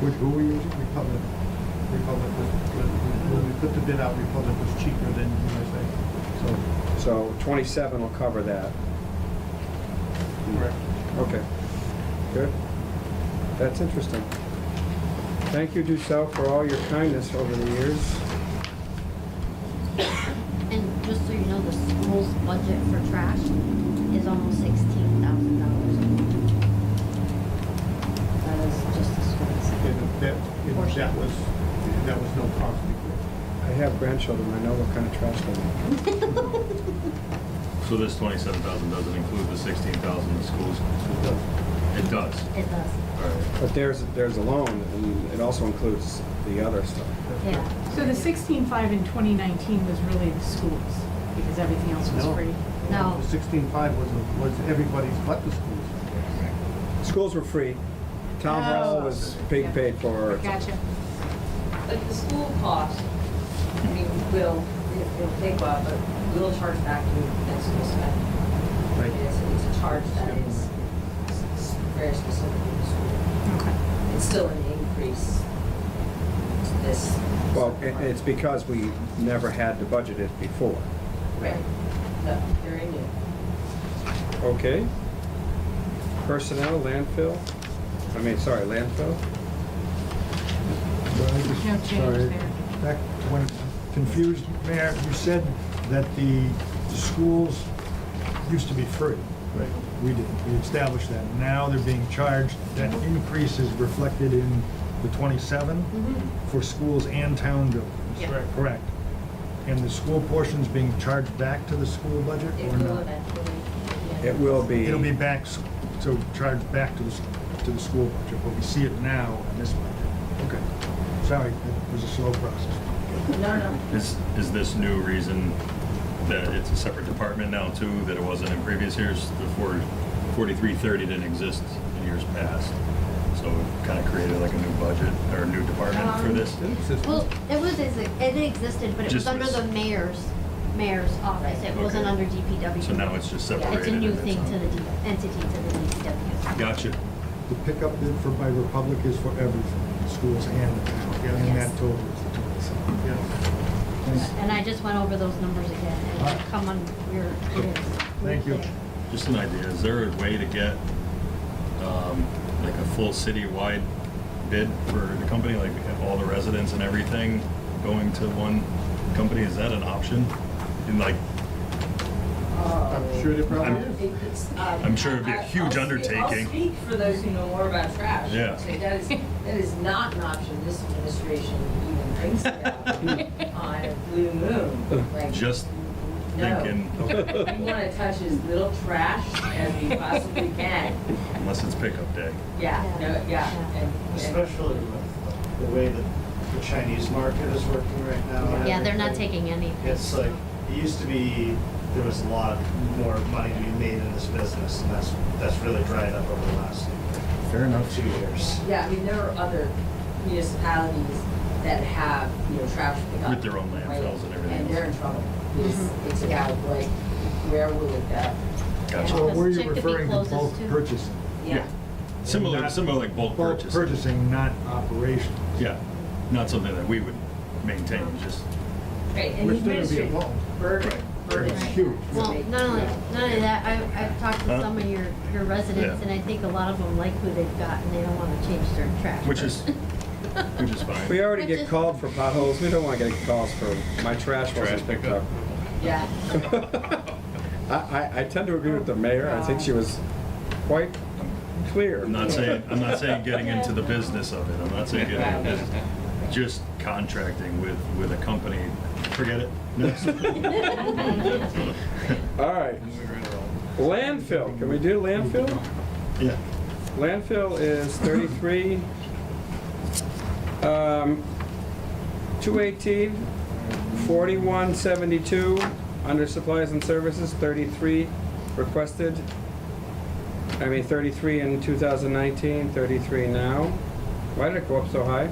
Which, who were you using? Republic? Republic was, when we put the bid out, Republic was cheaper than USA. So, So 27 will cover that. correct. Okay, good. That's interesting. Thank you, Ducelle, for all your kindness over the years. And just so you know, the school's budget for trash is almost sixteen thousand dollars. That is just the school's. And that, and that was, that was no cost before. I have grandchildren, I know what kind of trash they make. So this twenty-seven thousand doesn't include the sixteen thousand the schools? It does. It does. It does, All right. But there's, there's a loan, and it also includes the other stuff. yeah. So the sixteen-five in twenty nineteen was really the schools, because everything else was No. free. No. The sixteen-five was, was everybody's but the schools. Schools were free. Town hall Oh. was big paid for. Gotcha. But the school cost, I mean, will, it'll take a while, but we'll charge back to that school spend. Right. It's, it's a charge that is s- very specific to the school. Okay. It's still an increase to this. Well, and and it's because we never had to budget it before. Right, no, very new. Okay. Personnel, landfill, I mean, sorry, landfill? Well, I just- No change sorry, there. Back when, confused, Mayor, you said that the the schools used to be free. Right. We did, we established that. Now they're being charged, that increase is reflected in the 27 for schools and town buildings. Yeah. Correct. Correct. And the school portion's being charged back to the school budget It or will not? eventually. yeah. It will be. It'll be back, s- so charged back to the, s- to the school budget, but we see it now in this budget. Okay. Sorry, it was a slow process. No, no, Is, is this new reason that it's a separate department now too, that it wasn't in previous years? The four, forty-three thirty didn't exist in years past. So it kind of created like a new budget or a new department for Um, this? Didn't exist. Well, it was, it existed, but it was Just under was- the mayor's, mayor's office. It wasn't Okay. under DPW. So now it's just Yeah, It's a separated new and it's thing to not- the, D- entity to the DPW. Gotcha. The pickup bid for by Republic is for everything, schools and the town, getting that Yes. total is the twenty-seven. Yeah. And I just went over those numbers again, Alright. and come on, we're, it is. Thank you. Just an idea, is there a way to get, um, like a full city-wide bid for the company, like have all the residents and everything going to one company, is that an option? And like, Um, Oh. I'm sure they probably I'm- is. I'm I'm sure it'd be a huge undertaking. I'll uh, speak for those who know more about trash. Yeah. Say that is, that is not an option this administration even thinks about on a blue moon. Like, just no. thinking, We want to touch as little trash as we possibly can. unless it's pickup day. Yeah, Yeah. no, yeah. and- and- Especially with the way that the Chinese market is working right now. and Yeah, they're not everything. taking any. It's like, it used to be, there was a lot more money to be made in this business, and that's, that's really dried up over the last Fair enough. two years. Yeah, I mean, there are other municipalities that have, you know, trash pickup. With their own landfills and everything And they're in trouble. It's, it's about like, where will it go? Gotcha. So were Check you to be referring to closest bulk to- purchasing? Yeah. Similar, similar like bulk Bulk purchase. purchasing, not operations. Yeah, not something that we would maintain, just, Right, and We're the still gonna be administrative involved. burden, burden. Right. Huge. Well, not only, not only that, I, I've talked to Huh? some of your, your residents, Yeah. and I think a lot of them like who they've got, and they don't wanna change their trash. which is, which is fine. We already But get just- called for potholes, we don't want to get calls for my trash Trash wasn't picked up. Yeah. I, I, I tend to agree with the mayor, I think she was quite clear. I'm not saying, I'm not saying getting into the business of it, I'm not saying getting into the business, just contracting with, with a company, forget it. Next. All right. Landfill, can we do landfill? Yeah, Landfill is 33, um, 218, 4172, under supplies and services, 33 requested. I mean, 33 in 2019, 33 now. Why did it go up so high?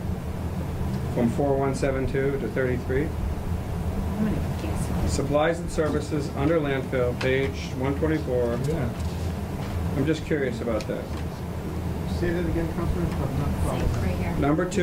From 4172 to 33? I'm gonna guess. Supplies and services, under landfill, page 124. Yeah. I'm just curious about that. Say that again, Counselor, I'm not It's following. like right here. Number two.